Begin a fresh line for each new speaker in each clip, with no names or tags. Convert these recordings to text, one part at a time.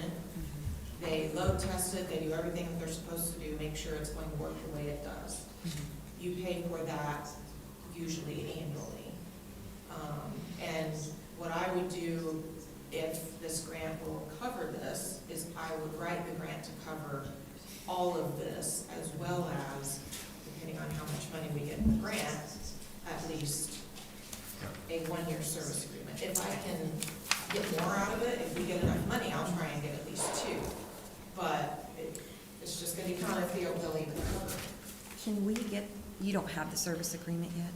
Mm-hmm. they load test it, they do everything that they're supposed to do, make sure it's going to work the way it does. You pay for that usually annually. Um, And what I would do if this grant will cover this, is I would write the grant to cover all of this, as well as, depending on how much money we get in the grant, at least a one-year service agreement. If I can get more out of it, if we get enough money, I'll try and get at least two. But it- it's just gonna be kind of Theo Billy, but cover.
Can we get, you don't have the service agreement yet?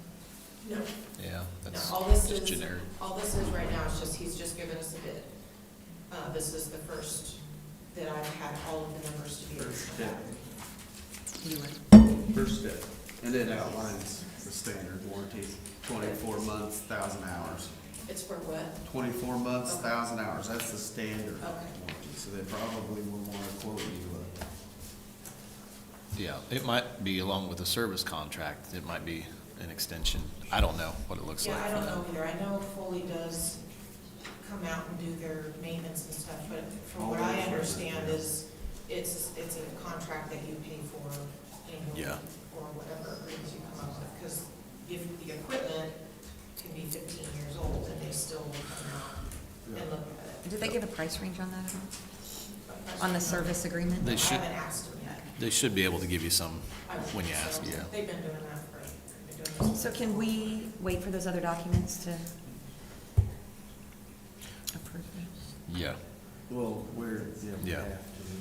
No,
Yeah,
no,
that's
all this
just
is,
generic.
all this is right now is just, he's just given us a bid. Uh, this is the first that I've had all of the numbers to be able
First
to
bid.
back.
Do you want-
First step, and it outlines the standard warranty, twenty-four months, thousand hours.
It's for what?
Twenty-four months,
Okay.
thousand hours, that's the standard
Okay.
warranty, so they probably will wanna quote you uh,
Yeah, it might be along with a service contract, it might be an extension. I don't know what it looks like.
Yeah, I
for
don't
them.
know either. I know Foley does come out and do their maintenance and stuff, but from what I understand is, it's, it's a contract that you pay for annually
Yeah.
or whatever agreements you come up with, because if the equipment can be fifteen years old and they still will come out and
a.
look at
Did they give a price range on that, at all?
it.
on the service agreement?
I
They should-
haven't asked them yet.
They should be able to give you some
I would
when you
think
ask,
so.
yeah.
They've been doing that for, they've been doing this.
So can we wait for those other documents to approve it?
Yeah,
Well, we're, yeah, we
Yeah.
have to.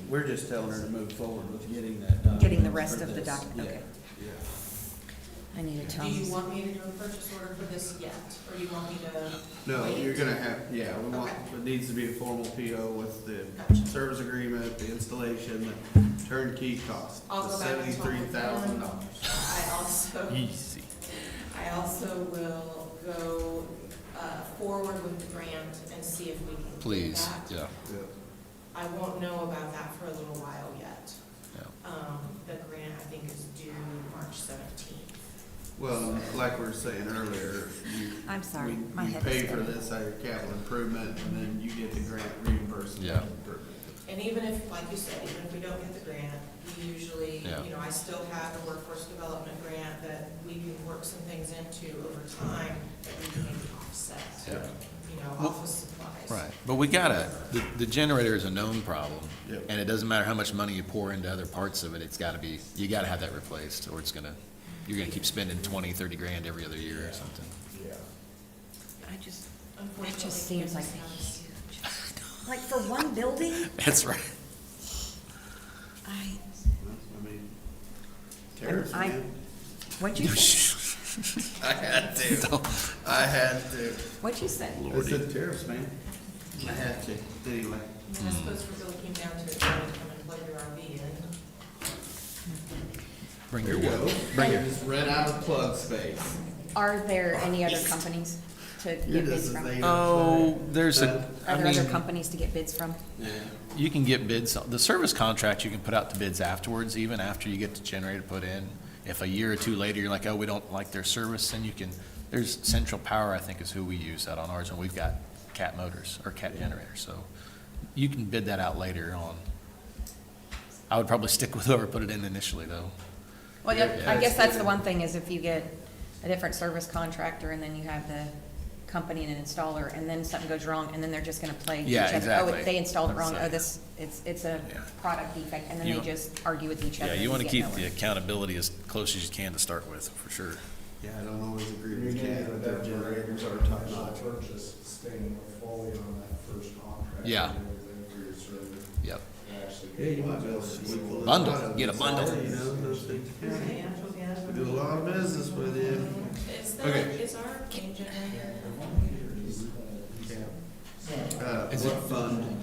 We're just telling her to move forward with getting that done.
Getting the
for
rest of the
this.
docu-
Yeah,
okay.
Yeah.
I need a
Do you
Tom's.
want me to do a purchase order for this yet, or you want me to?
No,
wait?
you're gonna have, yeah, we want,
Okay.
it needs to be a formal PO with the
Gotcha.
service agreement, the installation, the turnkey cost,
I'll
the
go back and talk
seventy-three
with
thousand
them.
dollars.
I also,
easy.
I also will go uh, forward with the grant and see if we can. do
Please,
that.
yeah,
I won't know about that for a little while yet.
yeah.
Um, The grant, I think, is due March seventeenth.
Well, like we were saying earlier, you.
I'm sorry,
we-
my head is
You pay for
spinning.
this out of your capital improvement, and then you get the grant reimbursement.
Yeah.
And even if, like you said, even if we don't get the grant, we usually,
Yeah.
you know, I still have a workforce development grant that we can work some things into over time that we can maybe offset,
Yeah.
you know,
Well,
office supplies.
Right, but we gotta, the, the generator is a known problem.
Yep.
And it doesn't matter how much money you pour into other parts of it, it's gotta be, you gotta have that replaced, or it's gonna, you're gonna keep spending twenty, thirty grand every other year or something.
I just, that
Unfortunately,
just seems like
Kansas
a
has-
huge, like for one building?
That's right.
I,
I mean, tariffs,
I-
man.
what'd you say?
I had to, I had to.
What'd you say?
I said tariffs, man. I had to, anyway.
I mean, I suppose if it really came down to it, you would come and plug your RV in.
Bring
There
your
you go.
wood.
Bring it. Just rent out of plug space.
Are there any other companies to
You're
get bids
just as
from?
negative.
Oh, there's a,
Are
I
there other
mean,
companies to get bids from?
Yeah.
you can get bids, the service contract, you can put out to bids afterwards, even after you get the generator put in. If a year or two later, you're like, oh, we don't like their service, then you can, there's Central Power, I think is who we use out on ours, and we've got cat motors or cat generators, so you can bid that out later on. I would probably stick with whoever put it in initially, though.
Well,
Yeah,
yeah, I
yeah,
guess
it's
that's the
good.
one thing, is if you get a different service contractor, and then you have the company and an installer, and then something goes wrong, and then they're just gonna play each
Yeah,
other. Oh,
exactly.
they installed it wrong,
So-
oh, this, it's, it's a
Yeah.
product defect, and then
You
they
want-
just argue with each other.
Yeah, you
and
want to
get
keep the
nowhere.
accountability as close as you can to start with, for sure.
Yeah, I don't always agree
You're
with
getting
Cat,
a
but their
better
generators are
rate
top
on
notch.
the Purchase staying fully on that first contract.
Yeah.
and everything for your service.
Yep.
You actually
Yeah, you
get
might be able
it.
to.
Bundle. Get a bundle.
You know, those things.
Okay,
We do a lot of business with you.
Is that,
that- Okay.
is our change in here?
Uh,
Is
what fund?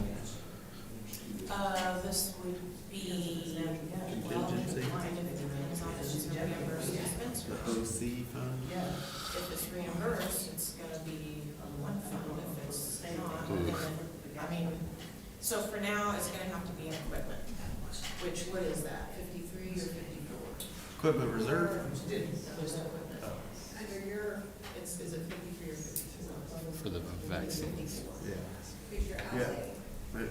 Uh, this would be, well,
Contingency.
it depends on if it's reimbursed or expense.
The OC fund?
If it's reimbursed, it's gonna be a one fund, if it's not, then, I mean, so for now, it's gonna have to be in equipment. Which, what is that, fifty-three or fifty-four?
Equipment reserve?
There's no equipment. Under your, it's, is it fifty-three or fifty-four?
For the vaccines.
Yeah.
Figure
Yeah. Right.